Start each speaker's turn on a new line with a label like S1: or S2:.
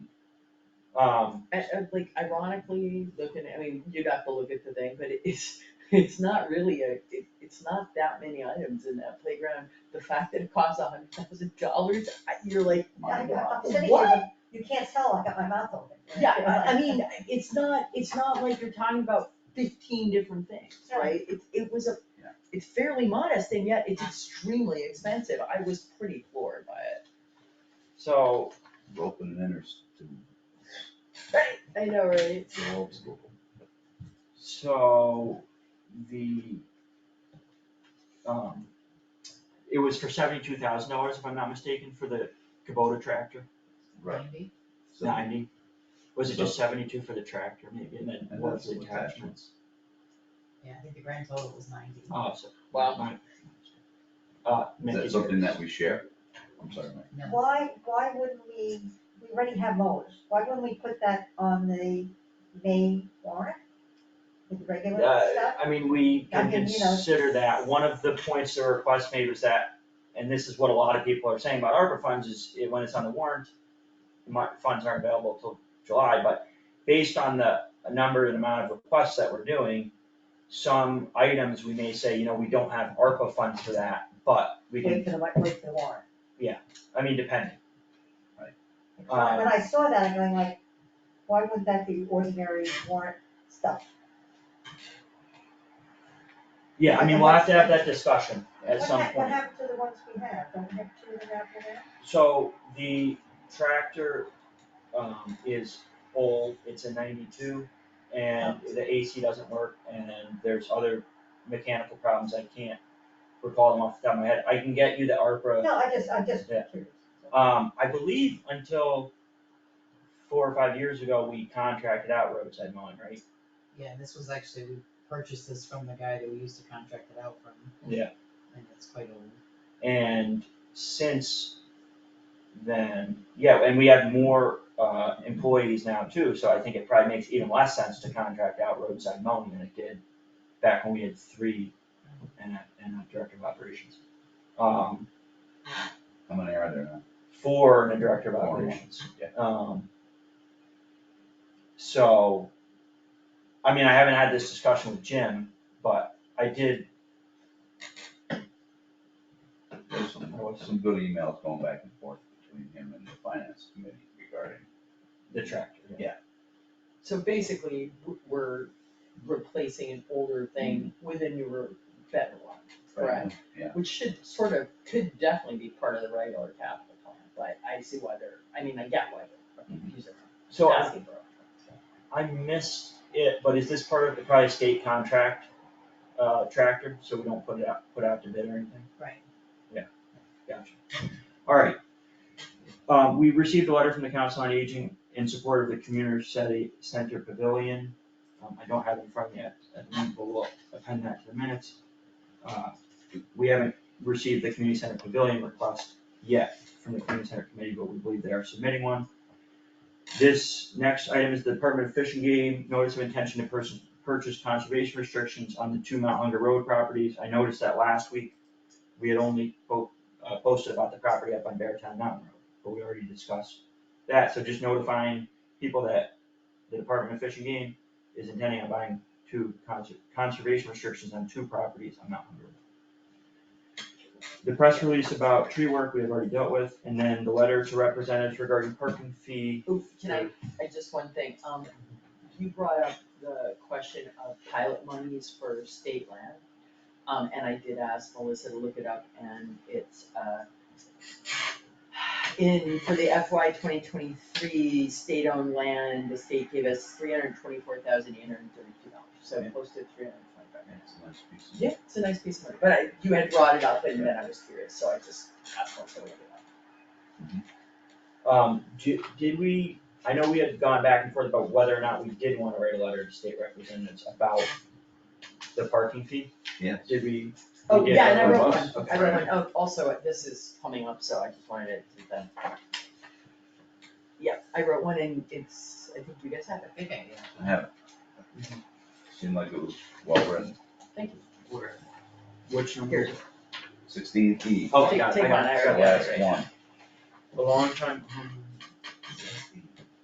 S1: Um,
S2: And, and like ironically, looking, I mean, you'd have to look at the thing, but it's, it's not really a, it, it's not that many items in that playground. The fact that it costs a hundred thousand dollars, you're like,
S3: I
S2: my
S3: got,
S2: God,
S3: I'm sitting here,
S2: what?
S3: going, you can't tell, I got my mouth open.
S2: Yeah, I, I mean, it's not, it's not like you're talking about fifteen different things, right? It, it was a,
S4: Yeah.
S2: it's fairly modest and yet it's extremely expensive. I was pretty floored by it.
S1: so,
S4: rope and enters to
S2: I know, right?
S4: the old school.
S1: so the um, it was for seventy-two thousand dollars, if I'm not mistaken, for the Kubota tractor,
S4: Right. So-
S1: ninety. Was it just
S4: So-
S1: seventy-two for the tractor maybe, and then
S4: And
S1: what's the
S4: that's with
S1: attachments?
S5: Yeah, I think the grand total was ninety.
S1: Oh, so.
S2: Wow.
S1: mine- Uh,
S4: Is
S1: Mickey.
S4: that something that we share? I'm sorry, Mike.
S5: No,
S3: Why, why wouldn't we, we already have mowers, why wouldn't we put that on the May warrant? With the regular
S1: Uh,
S3: stuff?
S1: I mean, we
S3: I
S1: can
S3: mean, you know.
S1: consider that, one of the points the request made was that, and this is what a lot of people are saying about ARPA funds, is it- when it's on the warrant, my, funds aren't available till July, but based on the number and amount of requests that we're doing, some items, we may say, you know, we don't have ARPA funds for that, but we can,
S3: Wait for the, wa- wait for the warrant.
S1: I mean, depending. Uh,
S3: When when I saw that, I'm going like, why wouldn't that be ordinary warrant stuff?
S1: Yeah, I mean, we'll have to have that discussion at
S3: What
S1: some
S3: hap-
S1: point.
S3: What happened to the ones we have, don't we have two of them out there now?
S1: So the tractor um is old, it's a ninety-two and the AC doesn't work and there's other mechanical problems, I can't recall them off the top of my head, I can get you the ARPA.
S3: No, I just, I just
S1: Uh, Yeah.
S3: curious.
S1: Um, I believe until four or five years ago, we contracted out roadside mowing, right?
S5: yeah, this was actually, we purchased this from the guy that we used to contract it out from.
S1: Yeah.
S5: And it's quite old.
S1: And since then, yeah, and we have more uh employees now too, so I think it probably makes even less sense to contract out roadside mowing than it did back when we had three and a and a director of operations. Um,
S4: How many are there now?
S1: four and a director of
S4: Four and one,
S1: operations.
S4: yeah.
S1: Um. So, I mean, I haven't had this discussion with Jim, but I did,
S4: There's some, some good emails going back and forth between him and the finance committee regarding.
S1: the tractor, yeah,
S2: So basically, w- we're replacing an older thing with a newer, better one, correct?
S4: Yeah.
S2: Which should sort of, could definitely be part of the regular capital plan, but I see why they're, I mean, I get why they're confusing,
S1: so I
S2: asking for it.
S1: I missed it, but is this part of the probably state contract, uh, tractor, so we don't put it out, put out to bid or anything?
S5: Right.
S1: Yeah, gotcha. Alright. Um, we received a letter from the Council on Aging in support of the Community City Center Pavilion. Um, I don't have it in front of me at, at the moment, but we'll append that to the minutes. Uh, We haven't received the Community Center Pavilion request yet from the Community Center Committee, but we believe they are submitting one. This next item is the Department of Fish and Game, notice of intention to pers- purchase conservation restrictions on the two Mount Hunger Road properties. I noticed that last week, we had only po- uh, posted about the property up on Beartown Mountain Road, but we already discussed that, so just notifying people that the Department of Fish and Game is intending on buying two conser- conservation restrictions on two properties on Mount Hunger Road. The press release about tree work we have already dealt with, and then the letter to representatives regarding parking fee
S2: Oof, can I, I just one thing, um, you brought up the question of pilot monies for state land. Um, and I did ask Melissa to look it up and it's, uh, in, for the FY twenty twenty-three state-owned land, the state gave us three hundred twenty-four thousand eight hundred thirty-two dollars, so
S4: Yeah.
S2: close to three hundred twenty-five.
S4: That's a nice piece of-
S2: Yeah, it's a nice piece of money, but I, you had brought it up and then I was curious, so I just asked Melissa to look it up.
S1: Um, do, did we, I know we had gone back and forth about whether or not we did wanna write a letter to state representatives about the parking fee,
S4: Yes.
S1: did we?
S2: Oh,
S1: Yeah,
S2: yeah, and
S1: that
S2: I wrote
S1: was-
S2: one, I wrote one, oh, also, this is coming up, so I just wanted it to then. Yeah, I wrote one and it's, I think you guys have it,
S5: I think I, yeah.
S4: I have it. Seemed like it was well written.
S2: thank you.
S1: Where? Which number?
S2: Here,
S4: Sixteen E,
S1: Oh, I
S2: Take-
S1: got it,
S2: take
S1: I got
S2: mine,
S1: it.
S2: I
S1: Sorry.
S2: already-
S4: last one.
S1: A long time. behind.